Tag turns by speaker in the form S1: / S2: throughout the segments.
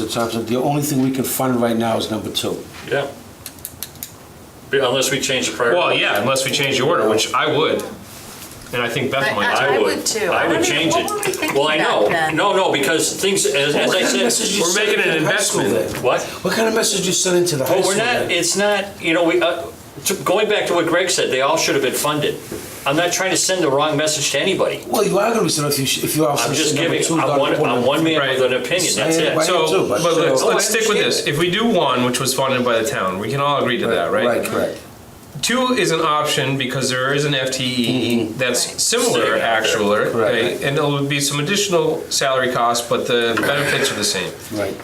S1: Mr. Thompson, the only thing we can fund right now is number two.
S2: Yeah. But Unless we change the priority.
S3: Well, yeah, unless we change the order, which I would, and I think Beth might.
S2: I
S4: I
S2: would.
S4: would too.
S2: I
S4: I
S2: would
S4: don't
S2: change
S4: even- what
S2: it.
S4: were we thinking
S2: Well, I
S4: back
S2: know.
S4: then?
S2: No, no, because things, as, as I
S1: What kind of message
S2: said,
S1: you
S2: we're
S1: sending
S2: making an
S1: to the high school
S2: investment.
S1: then?
S2: What?
S1: What kind of message you sending to the high
S2: Well,
S1: school?
S2: we're not,
S1: then?
S2: it's not, you know, we, uh, to- going back to what Greg said, they all should have been funded. I'm not trying to send the wrong message to anybody.
S1: Well, you are going to be sending if you, sh- if you are.
S2: I'm just
S1: sending
S2: giving,
S1: number two,
S2: I'm
S1: Dr.
S2: one,
S1: Porter.
S2: I'm one man
S3: Right.
S2: with an opinion, that's
S1: Say it
S2: it.
S1: right.
S3: So,
S1: too,
S3: but
S1: but
S3: let's,
S1: still-
S3: let's stick with this. If we do one, which was funded by the town, we can all agree to that, right?
S1: Right, correct.
S3: Two is an option because there is an FTE that's similar,
S2: Sitting out there.
S3: actual, right?
S1: Correct.
S3: And there will be some additional salary costs, but the benefits are the same.
S1: Right.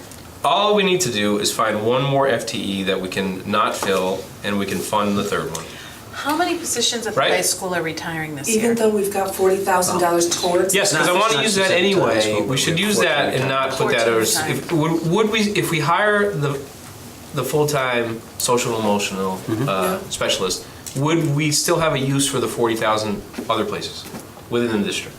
S3: All we need to do is find one more FTE that we can not fill, and we can fund the third one.
S4: How many positions at the
S3: Right.
S4: high school are retiring this year?
S5: Even though we've got forty thousand
S3: Oh.
S5: dollars towards.
S3: Yes, because I
S1: Not-
S3: want to
S1: not
S3: use that
S1: specific times,
S3: anyway.
S1: but
S3: We should
S1: we have
S3: use that
S1: full-time
S3: and not put that
S4: Full-time
S3: as,
S4: time.
S3: if, would, would we, if we hire the, the full-time social emotional
S2: Mm-hmm.
S3: uh, specialist, would we still have a use for the forty thousand other places within the district?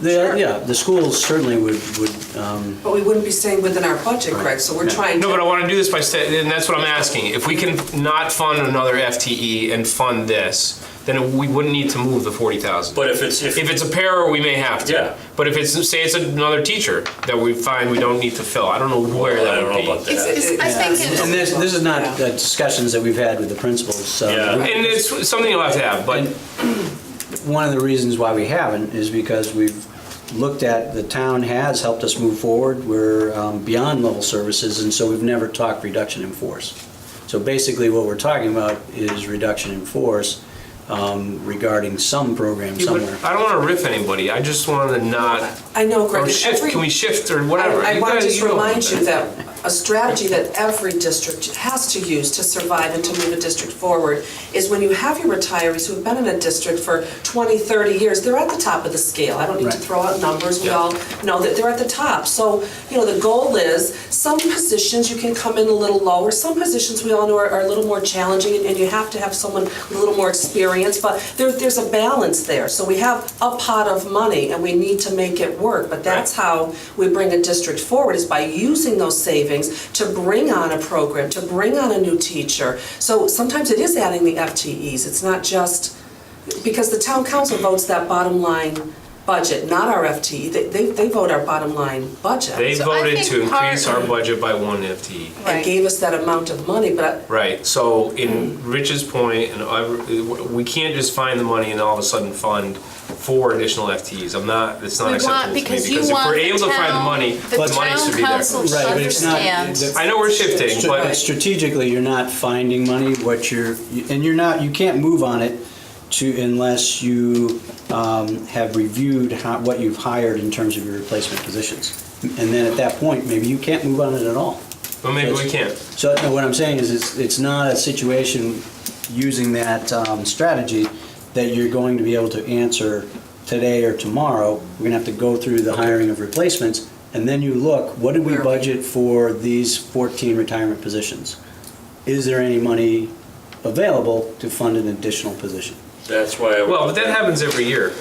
S6: They- Yeah, the schools certainly would, would, um,
S5: But we wouldn't be staying within our budget, correct? So we're trying to.
S3: No, but I want to do this by, sta- and that's what I'm asking. If we can not fund another FTE and fund this, then we wouldn't need to move the forty thousand.
S2: But if it's, if,
S3: If it's a pair, we may have to.
S2: Yeah.
S3: But if it's, say it's another teacher that we find we don't need to fill, I don't know where
S2: I
S3: that
S2: don't
S3: would be.
S2: know about
S4: It's-
S2: that.
S4: it's- I think it's-
S6: and this, this is not uh, discussions that we've had with the principals, so.
S2: Yeah.
S3: And it's something you'll have to have, but
S6: One of the reasons why we haven't is because we've looked at, the town has helped us move forward, we're um, beyond level services, and so we've never talked reduction in force. So basically, what we're talking about is reduction in force um, regarding some program somewhere.
S3: I don't want to riff anybody. I just want to not,
S5: I know, Greg.
S3: or
S5: and
S3: shift,
S5: every-
S3: can we shift or
S5: I-
S3: whatever?
S5: I
S3: You
S5: want to
S3: guys-
S5: just
S3: you know
S5: remind you
S3: about
S5: that a strategy that every district has to use to survive and to move a district forward is when you have your retirees who have been in a district for 20, 30 years, they're at the top of the scale. I don't need to
S6: Right.
S5: throw out numbers, we all know that they're at the top. So, you know, the goal is, some positions you can come in a little lower, some positions we all know are are a little more challenging and- and you have to have someone with a little more experience, but there- there's a balance there. So we have a pot of money and we need to make it work, but that's how we bring a district forward is by using those savings to bring on a program, to bring on a new teacher. So sometimes it is adding the FTEs, it's not just, because the town council votes that bottom line budget, not our FTE. They, they, they vote our bottom line budget.
S3: They
S4: So I
S3: voted
S4: think
S3: to increase
S4: part-
S3: our budget by one FTE.
S5: And gave us that amount of money, but
S3: Right, so in Rich's point, and I- we can't just find the money and all of a sudden fund four additional FTEs. I'm not, it's not
S4: We want,
S3: acceptable to me.
S4: because you want the
S3: Because if we're able to find the
S4: town-
S3: money,
S4: the
S3: the money
S4: town
S3: should be there.
S4: council should
S6: Right, but it's not-
S4: understand.
S6: the-
S3: I know we're shifting,
S6: But
S3: but
S6: strategically, you're not finding money, what you're, and you're not, you can't move on it to, unless you um, have reviewed how- what you've hired in terms of your replacement positions. And then at that point, maybe you can't move on it at all.
S3: but maybe we can't.
S6: So no, what I'm saying is, it's, it's not a situation using that um, strategy that you're going to be able to answer today or tomorrow. We're gonna have to go through the hiring of replacements, and then you look, what did we
S5: Where are we?
S6: budget for these 14 retirement positions? Is there any money available to fund an additional position?
S2: That's why. I-
S3: Well, but that happens every year,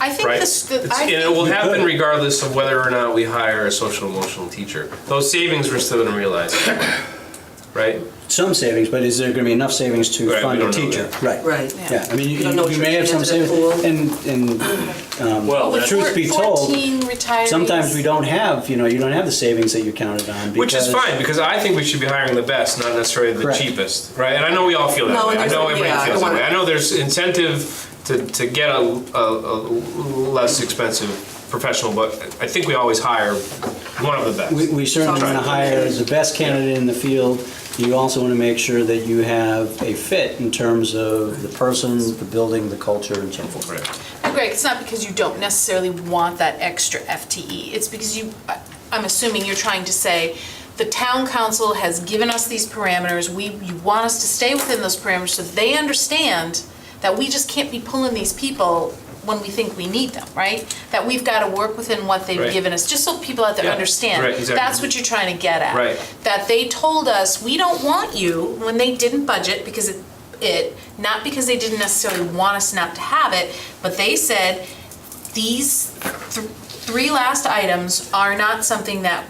S4: I think
S3: right?
S4: this,
S3: It's-
S4: the- I
S3: And it will
S6: You
S3: happen
S6: could.
S3: regardless of whether or not we hire a social emotional teacher. Those savings we're still gonna realize, right?
S6: Some savings, but is there gonna be enough savings to
S3: Right, we
S6: fund a
S3: don't know
S6: teacher?
S3: that.
S6: Right.
S5: Right.
S6: Yeah, I mean, you
S5: You don't know what
S6: you
S5: you're
S6: may have some
S5: getting into
S6: savings,
S5: the
S6: and, and
S2: Well,
S4: think
S2: that's-
S6: truth be told,
S4: Fourteen retirees.
S6: sometimes we don't have, you know, you don't have the savings that you counted on.
S3: Which is
S6: because-
S3: fine, because I think we should be hiring the best, not necessarily the
S6: Correct.
S3: cheapest, right? And I know we all feel that
S5: No,
S3: way. I
S5: there's-
S3: know everybody
S5: yeah, I
S3: feels
S5: don't
S3: that way.
S5: wanna-
S3: I know there's incentive to, to get a, a, a less expensive professional, but I think we always hire one of the best.
S6: We, we certainly want to hire the best candidate in the field. You also want to make sure that you have a fit in terms of the person, the building, the culture, and so forth.
S3: Right.
S4: And Greg, it's not because you don't necessarily want that extra FTE. It's because you, I- I'm assuming you're trying to say, the town council has given us these parameters, we, you want us to stay within those parameters so they understand that we just can't be pulling these people when we think we need them, right? That we've got to work within what they've
S3: Right.
S4: given us, just so people out there
S3: Yeah,
S4: understand.
S3: right, exactly.
S4: That's what you're trying to get at.
S3: Right.
S4: That they told us, we don't want you, when they didn't budget because it, it, not because they didn't necessarily want us not to have it, but they said, these th- three last items are not something that